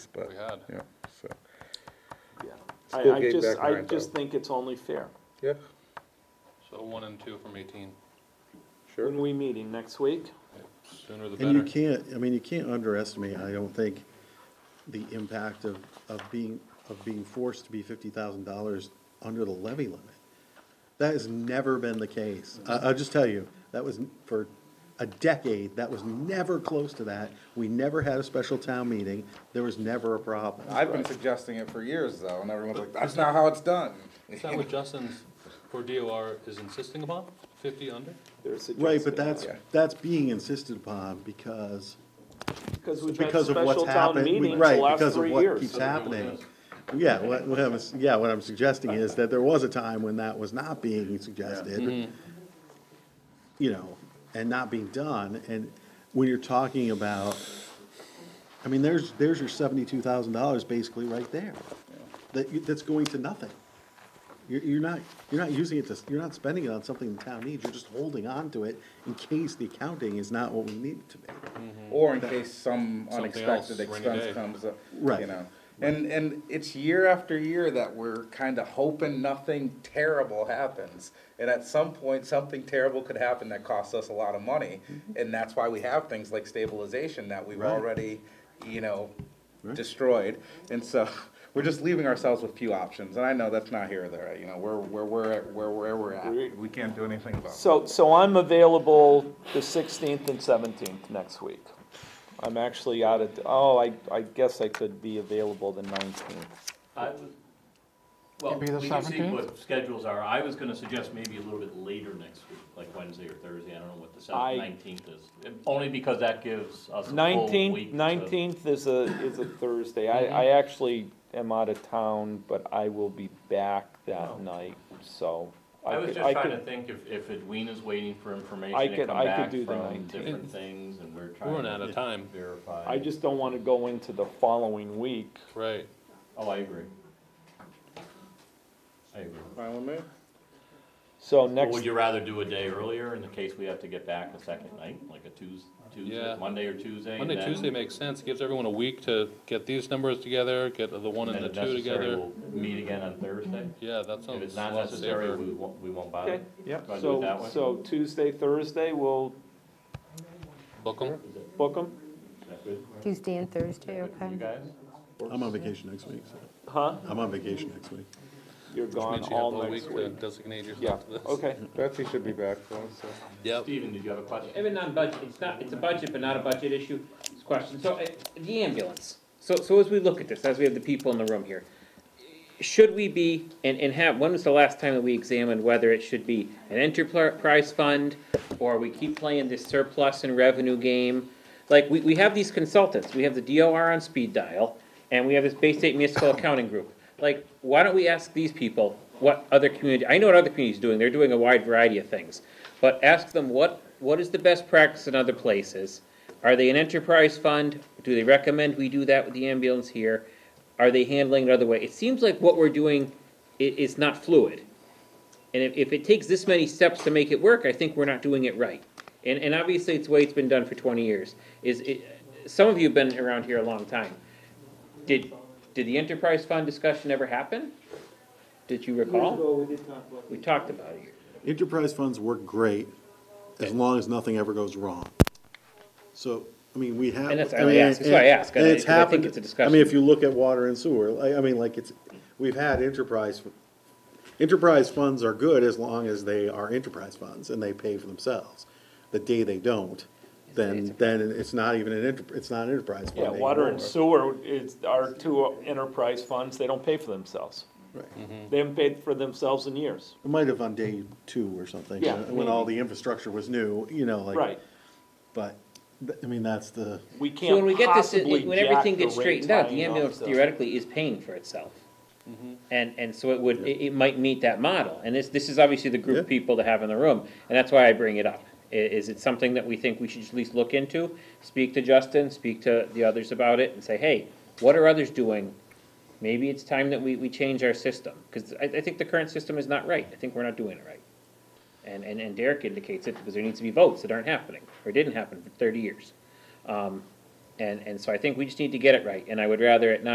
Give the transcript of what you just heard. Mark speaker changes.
Speaker 1: but,
Speaker 2: We had.
Speaker 1: yeah, so,
Speaker 3: Yeah.
Speaker 1: Still
Speaker 3: I, I
Speaker 1: getting
Speaker 3: just,
Speaker 1: back
Speaker 3: I
Speaker 1: around,
Speaker 3: just
Speaker 1: though.
Speaker 3: think it's only fair.
Speaker 1: yeah,
Speaker 2: So one and two from eighteen,
Speaker 1: sure.
Speaker 3: When we meeting next week?
Speaker 2: sooner the
Speaker 4: And you
Speaker 2: better.
Speaker 4: can't, I mean, you can't underestimate, I don't think, the impact of, of being, of being forced to be fifty thousand dollars under the levy limit. That has never been the case. I, I'll just tell you, that was, for a decade, that was never close to that. We never had a special town meeting. There was never a problem.
Speaker 5: I've been suggesting it for years though, and everyone's like, that's not how it's done.
Speaker 2: Is that what Justin's, for DOR is insisting upon, fifty under?
Speaker 3: There's a
Speaker 4: Right, but
Speaker 3: Tuesday.
Speaker 4: that's,
Speaker 1: Yeah.
Speaker 4: that's being insisted upon because
Speaker 3: Because we've had
Speaker 4: because of what's
Speaker 3: special town
Speaker 4: happened, we-
Speaker 3: meetings the
Speaker 4: right,
Speaker 3: last
Speaker 4: because of
Speaker 3: three
Speaker 4: what
Speaker 3: years.
Speaker 4: keeps happening. Yeah, what, what I'm, yeah, what I'm suggesting is that there was a time when that was not being suggested. You know, and not being done, and when you're talking about, I mean, there's, there's your seventy-two thousand dollars basically right there. That, you- that's going to nothing. You're, you're not, you're not using it to, you're not spending it on something the town needs, you're just holding on to it in case the accounting is not what we need it to be.
Speaker 5: Or in case some
Speaker 2: Something
Speaker 5: unexpected
Speaker 2: else, rainy day.
Speaker 5: expense comes up,
Speaker 4: Right.
Speaker 5: you know. And, and it's year after year that we're kinda hoping nothing terrible happens. And at some point, something terrible could happen that costs us a lot of money.
Speaker 2: Mm-hmm.
Speaker 5: And that's why we have things like stabilization that we've
Speaker 4: Right.
Speaker 5: already, you know, destroyed. And so, we're just leaving ourselves with few options. And I know that's not here or there, you know, we're, we're, we're, at- we're, where we're at. We can't do anything about it.
Speaker 3: So, so I'm available the sixteenth and seventeenth next week. I'm actually out of, oh, I, I guess I could be available the nineteenth.
Speaker 6: I would, well, we
Speaker 7: Maybe the
Speaker 6: can see
Speaker 7: 17th?
Speaker 6: what schedules are. I was gonna suggest maybe a little bit later next week, like Wednesday or Thursday. I don't know what the
Speaker 3: I-
Speaker 6: nineteenth is. Only because that gives us a full week. Mm-hmm.
Speaker 3: Nineteenth,
Speaker 6: to-
Speaker 3: nineteenth is a, is a Thursday. I, I actually am out of town, but I will be back
Speaker 6: Oh.
Speaker 3: that night, so.
Speaker 6: I was
Speaker 3: could-
Speaker 6: just trying to
Speaker 3: could-
Speaker 6: think if, if Edwina's waiting for
Speaker 3: I
Speaker 6: information to
Speaker 3: could-
Speaker 6: come
Speaker 3: I could
Speaker 6: back
Speaker 3: do the
Speaker 6: from
Speaker 3: 19th.
Speaker 6: different things and we're
Speaker 2: We're
Speaker 6: trying
Speaker 2: running out
Speaker 6: to
Speaker 2: of time,
Speaker 6: verify.
Speaker 3: I just don't wanna go into the following week.
Speaker 2: right.
Speaker 6: Oh, I agree. I agree.
Speaker 5: Fine with me?
Speaker 3: So
Speaker 6: Well,
Speaker 3: next,
Speaker 6: Would you rather do a day earlier in the case we have to get back a second night, like a Tues,
Speaker 2: Yeah.
Speaker 6: Tuesday, Monday or Tuesday? and
Speaker 2: Monday,
Speaker 6: then-
Speaker 2: Tuesday makes sense, It gives everyone a week to get these numbers together, get the one
Speaker 6: And
Speaker 2: and the
Speaker 6: then if
Speaker 2: two
Speaker 6: necessary,
Speaker 2: together.
Speaker 6: we'll meet again on Thursday.
Speaker 2: Yeah, that
Speaker 6: If it's
Speaker 2: sounds a
Speaker 6: not
Speaker 2: lot
Speaker 6: necessary,
Speaker 2: safer.
Speaker 6: we won't, we won't bother.
Speaker 3: okay, yeah,
Speaker 6: Do I do it that
Speaker 3: so,
Speaker 6: way?
Speaker 3: so Tuesday, Thursday, we'll
Speaker 2: Book 'em.
Speaker 3: book them,
Speaker 6: Is that good?
Speaker 7: Tuesday and Thursday,
Speaker 6: You
Speaker 7: okay?
Speaker 6: guys?
Speaker 4: I'm on vacation next week, so,
Speaker 3: huh?
Speaker 4: I'm on vacation next week.
Speaker 3: You're gone
Speaker 2: Means you have
Speaker 3: all
Speaker 2: a whole
Speaker 3: next
Speaker 2: week to
Speaker 3: week.
Speaker 2: Designate
Speaker 3: Yeah,
Speaker 2: yourself to this.
Speaker 3: okay.
Speaker 1: Betsy should be back though, so.
Speaker 2: Yep.
Speaker 6: Steven, did you have a question?
Speaker 8: Even non-budget, it's not, it's a budget, but not a budget issue, it's a question, so, uh, the ambulance. So, so as we look at this, as we have the people in the room here, should we be, and, and have, when was the last time that we examined whether it should be an enterprise fund? Or we keep playing this surplus and revenue game? Like, we, we have these consultants, we have the DOR on speed dial, and we have this Bay State Municipal Accounting Group. Like, why don't we ask these people what other community, I know what other communities are doing, they're doing a wide variety of things. But ask them what, what is the best practice in other places? Are they an enterprise fund? Do they recommend we do that with the ambulance here? Are they handling it other way? It seems like what we're doing i- is not fluid. And if, if it takes this many steps to make it work, I think we're not doing it right. And, and obviously, it's the way it's been done for twenty years, is it, some of you have been around here a long time. Did, did the enterprise fund discussion ever happen? Did you recall?
Speaker 3: we did talk about
Speaker 8: We talked about it.
Speaker 4: Enterprise funds work great as long as nothing ever goes wrong. So, I mean, we have.
Speaker 8: And that's-
Speaker 4: mean,
Speaker 8: I ask- that's why I ask,
Speaker 4: and it's
Speaker 8: because I think
Speaker 4: happened-
Speaker 8: it's a
Speaker 4: I mean, if
Speaker 8: discussion.
Speaker 4: you look at water and sewer, I, I mean, like, it's, we've had enterprise, enterprise funds are good as long as they are enterprise funds and they pay for themselves. The day they don't, then, then it's not even an enter, it's not an enterprise fund
Speaker 3: Yeah, water and sewer is, are two enterprise funds, they don't pay for themselves.
Speaker 4: Right.
Speaker 8: Mm.
Speaker 3: They haven't paid for themselves in years.
Speaker 4: It might have on day two or something,
Speaker 3: Yeah,
Speaker 4: when all the infrastructure was new, you know, like.
Speaker 3: Right,
Speaker 4: But, th- I mean, that's the,
Speaker 3: we
Speaker 8: So when we
Speaker 3: can't
Speaker 8: get this,
Speaker 3: possibly
Speaker 8: when
Speaker 3: jack
Speaker 8: everything
Speaker 3: the
Speaker 8: gets
Speaker 3: rate
Speaker 8: straightened out, the
Speaker 3: high enough
Speaker 8: ambulance
Speaker 3: to-
Speaker 8: theoretically is paying for itself. And, and so it would, it, it might meet that model, and this, this is obviously the group
Speaker 4: Yeah.
Speaker 8: of people to have in the room, and that's why I bring it up. I- is it something that we think we should at least look into, speak to Justin, speak to the others about it, and say, hey, what are others doing? Maybe it's time that we, we change our system, cause I, I think the current system is not right, I think we're not doing it right. And, and, and Derek indicates it, because there needs to be votes that aren't happening, or didn't happen for thirty years. Um, And, and so I think we just need to get it right, and I would rather it not